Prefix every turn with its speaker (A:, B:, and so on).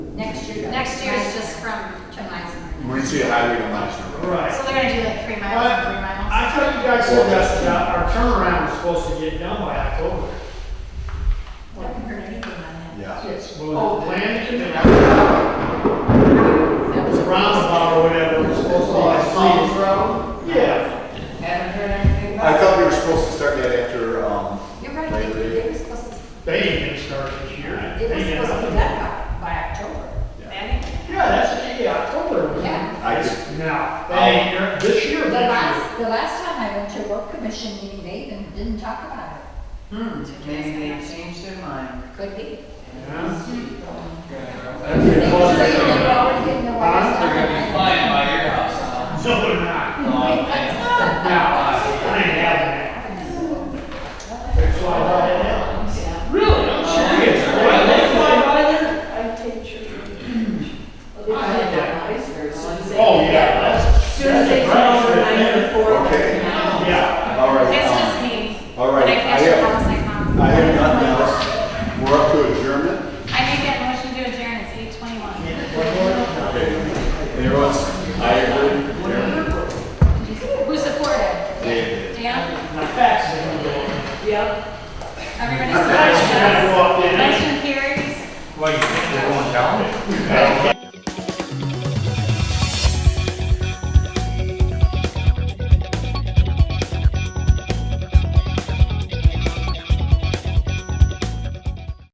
A: Next year.
B: Next year's just from tonight's.
C: We're gonna see a high rate on last number.
B: So
D: Right.
B: they're gonna do like three miles,
D: But
B: three miles.
D: I thought you guys said that uh, our turnaround was supposed to get done by October.
A: I haven't heard anything on that.
C: Yeah.
D: Well, the plan, it was roundabout or whatever, it was supposed to be.
E: Oh,
A: Oh,
D: Yeah,
F: Haven't heard anything
C: I
F: about it.
C: thought we were supposed to start that after, um,
A: You're right,
C: Labor
A: they,
C: Day.
A: they were supposed to,
D: they ain't gonna start this year.
A: they
D: They
A: were
D: ain't
A: supposed to be done by,
D: nothing.
A: by October.
D: Yeah, that's, yeah, October. was-
A: Yeah.
C: I just-
D: No, they ain't, here this year,
A: The
D: next
A: last, the last time I went to a work commission meeting, they even didn't talk about it.
F: Hmm, maybe they changed their mind.
A: Could be.
D: year. Yeah.
A: They were saying they were already getting the
D: Huh?
A: wires
E: They're
A: done.
E: gonna be flying by your house
D: So they're not.
E: now. Oh, man.
D: No, I ain't having that. They fly right now. Really? I'm serious. Why they fly by there?
F: I take sure.
D: I had that Oh,
F: Oh,
D: yeah, that's.
F: Soon as they
D: that's a
F: come over,
D: brush right
F: I
D: there.
F: have four.
C: Okay.
D: Yeah.
C: all right.
B: It's
C: um,
B: just me.
C: All right,
B: But I
C: I
B: guess you're almost
C: have,
B: like um, mom.
C: I have nothing else. We're up to adjournment.
B: I make that motion to adjourn, it's eight twenty-one.
C: Okay. Anyone, I agree. Adjournment.
B: Who supported?
C: Yeah.
B: Dan?
D: My facts are going.
F: Yep.
B: Everybody
D: Nice to
B: supported
D: have
B: us?
D: you walked in.
B: Motion carries?
E: Well, you think they're going down it?
C: Yeah.